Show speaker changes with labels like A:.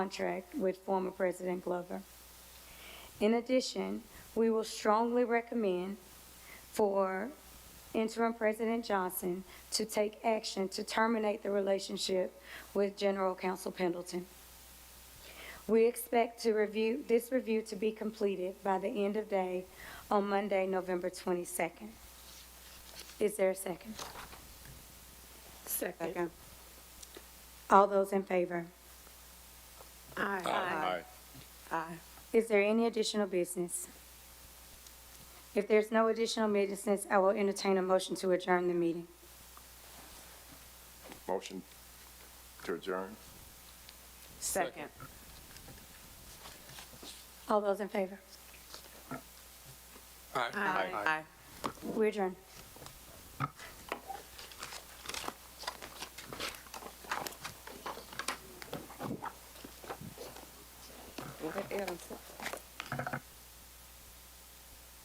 A: contract with former President Glover. In addition, we will strongly recommend for interim President Johnson to take action to terminate the relationship with General Counsel Pendleton. We expect to review, this review to be completed by the end of day on Monday, November 22nd. Is there a second?
B: Second.
A: All those in favor?
B: Aye. Aye.
A: Is there any additional business? If there's no additional business, I will entertain a motion to adjourn the meeting.
C: Motion to adjourn?
B: Second.
A: All those in favor?
B: Aye.
A: We adjourn.
B: Aye.